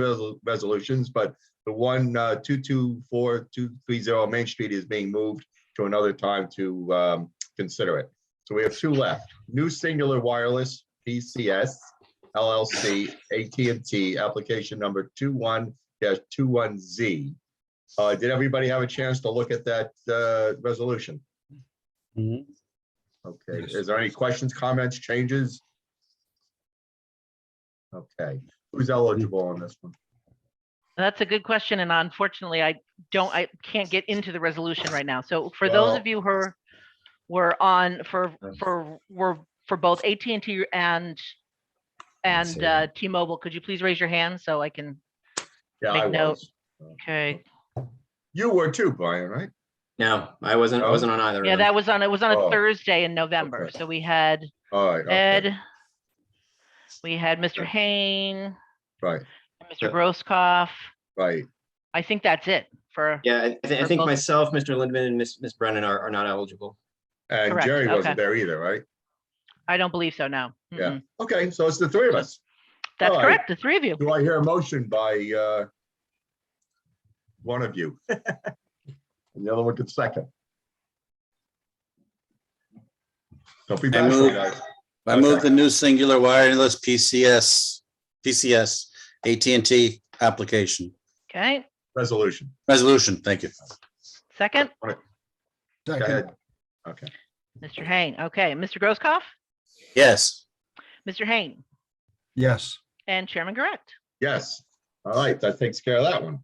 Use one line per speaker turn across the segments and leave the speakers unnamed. resol- resolutions, but the one, uh, two, two, four, two, three, zero Main Street is being moved to another time to, um, consider it. So we have two left, New Singular Wireless, PCS LLC, AT&T, application number two one dash two one Z. Uh, did everybody have a chance to look at that, uh, resolution?
Mhm.
Okay,
Yes.
is there any questions, comments, changes? Okay, who's eligible on this one?
That's a good question, and unfortunately, I don't, I can't get into the resolution right now. So for those
Well-
of you who are- were on for,
Yeah.
for, were, for both AT&T and,
see.
and uh, T-Mobile, could you please raise your hand so I can,
Yeah, I
Make note.
was.
okay?
You were too, Brian, right?
No, I wasn't, I
No?
wasn't on either.
Yeah,
of them.
that was on, it was on a
Oh,
Thursday in November,
okay.
so we had
All right. okay,
Ed, we had Mr. Hain,
Right,
Yeah.
Mr. Grosskopf.
right.
I think that's it for,
Yeah, I- I, thi- I
Or
think
both.
myself, Mr. Lindman and Miss Miss Brennan are, are not eligible.
And
Correct,
Jerry
okay.
wasn't there either, right?
I don't believe so, no.
Yeah. Oh,
Mm-mm.
Okay, so it's the three of us.
That's
All right.
correct, the three of you.
Do I hear a motion by uh one of you? And the other one could second. Don't be
I
bashful,
move-
guys.
I move the new singular wireless PCS, PCS, AT&T application.
Okay,
Resolution.
Resolution, thank you.
second,
Go ahead. Okay,
Mr. Hain. Okay, Mr. Grosskopf,
Yes.
Mr. Hain,
Yes,
and Chairman Correct.
yes. All right, that takes care of that one.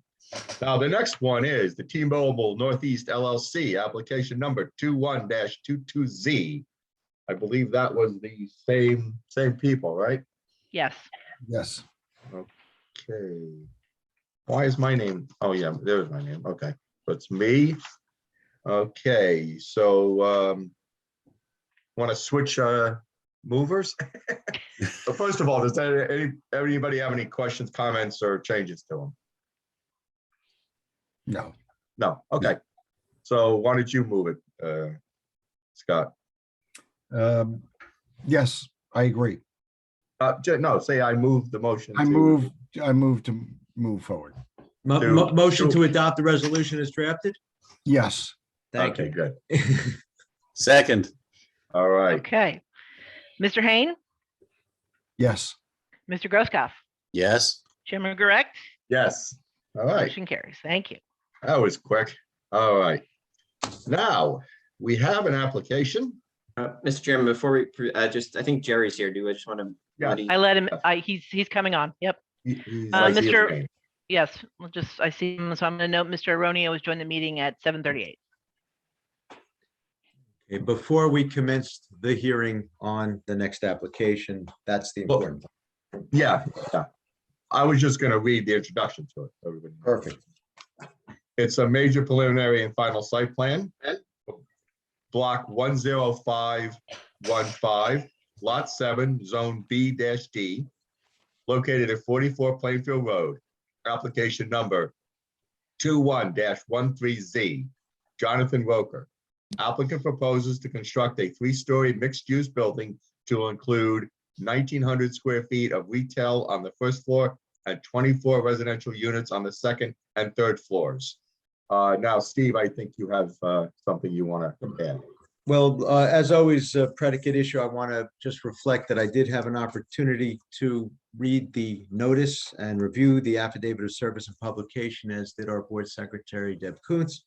Now, the next one is the T-Mobile Northeast LLC, application number 21-22Z. I believe that was the same, same people, right?
Yes,
yes.
Okay. Why is my name? Oh, yeah, there's my name. Okay, that's me. Okay, so um want to switch uh movers? But First of all, does that- any anybody have any questions, comments, or changes to them?
No,
No, okay. So why don't you move it, uh Scott?
um, yes, I agree.
Uh, J- No, say I move the motion.
I
to-
move, I move to move forward.
Mo-
To-
mo- Motion
to-
to adopt the resolution as drafted?
Yes,
Thank
Okay,
you.
good.
Second,
All right,
okay. Mr. Hain,
yes,
Mr. Grosskopf,
yes.
Chairman Correct,
yes. All right.
motion carries. Thank you.
That was quick. All right. Now, we have an application.
Uh, Mr. Chairman, before we, pre- uh, just, I think Jerry's here. Do I just want to?
Yeah.
I let him, I, he's, he's coming on. Yep,
He- he's
Uh,
like the
Mr.
attorney.
yes. We'll just, I see him, so I'm gonna note Mr. Aronio has joined the meeting at seven thirty-eight.
Okay, Before we commence the hearing on the next application, that's the
Well-
important. part.
Yeah, yeah. I was just gonna read the introduction to it. so everybody knows.
Perfect.
It's a major preliminary and final site plan. Block one zero five one five, lot seven, zone B D. Located at forty-four Plainfield Road, application number two one one three Z. Jonathan Roker. Applicant proposes to construct a three-story mixed-use building to include nineteen hundred square feet of retail on the first floor and twenty-four residential units on the second and third floors. Uh, now, Steve, I think you have, uh, something you want to add.
Well, uh, as always, uh, predicate issue, I want to just reflect that I did have an opportunity to read the notice and review the affidavit of service and publication, as did our board secretary, Deb Kuntz.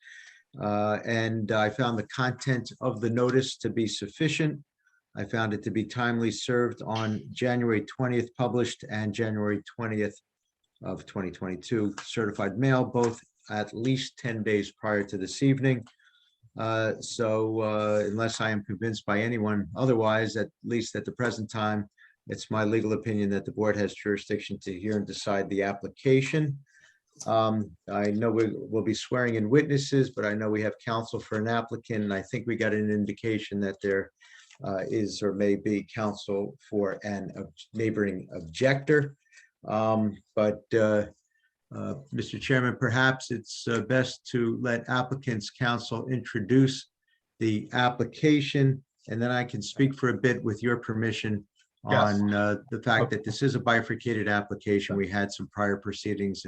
Uh, And I found the content of the notice to be sufficient. I found it to be timely served on January 20th published and January 20th of 2022 certified mail, both at least 10 days prior to this evening. Uh, So uh, unless I am convinced by anyone otherwise, at least at the present time, it's my legal opinion that the board has jurisdiction to hear and decide the application. Um, I know we will be swearing in witnesses, but I know we have counsel for an applicant, and I think we got an indication that there uh, is or may be counsel for an ob- neighboring objector. Um, But uh, uh, Mr. Chairman, perhaps it's uh, best to let applicants' counsel introduce the application, and then I can speak for a bit with your permission
Yes.
on uh, the fact that this is a bifurcated application. We had some prior proceedings